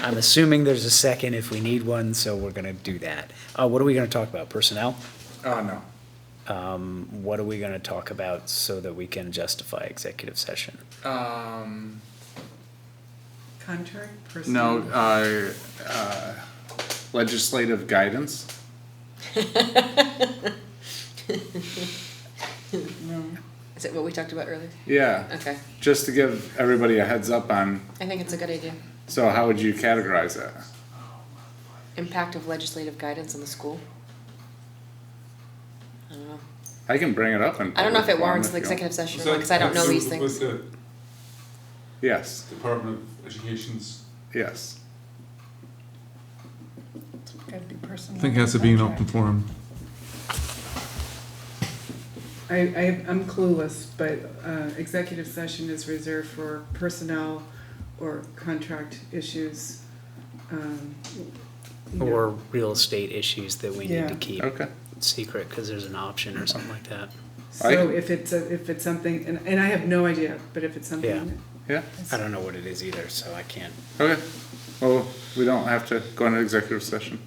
I'm assuming there's a second if we need one, so we're gonna do that. Uh, what are we gonna talk about? Personnel? Uh, no. Um, what are we gonna talk about so that we can justify executive session? Um, Contract person? no, uh, uh, legislative guidance. Is it what we talked about earlier? Yeah. Okay, Just to give everybody a heads up on, I think it's a good idea. so how would you categorize it? Impact of legislative guidance on the school? I don't know. I can bring it up in. I don't know if public it forum warrants an you want. executive session, Was that- because I don't know that's these the- things. Was Yes, the Department of Education's. yes. Gotta be personal. I think it has to be an open forum. I, I, I'm clueless, but, uh, executive session is reserved for personnel or contract issues. um, you know. Or real estate issues that we need Yeah. to keep Okay. secret, cause there's an option or something like that. So if it's, a- if it's something, and, and I have no idea, but if it's Yeah. something. Yeah. I don't know what it is either, so I can't. Okay. Well, we don't have to go into executive session.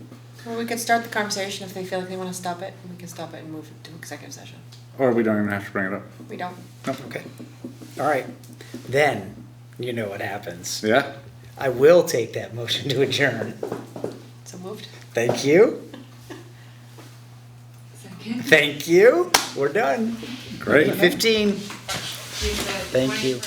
Well, we could start the conversation if they feel like they wanna stop it, we can stop it and move to executive session. Or we don't even have to bring it up. We don't. Okay. All right, then, you know what happens. Yeah? I will take that motion to adjourn. So moved? Thank you. Thank you. We're done. Great. Fifteen. Thank you.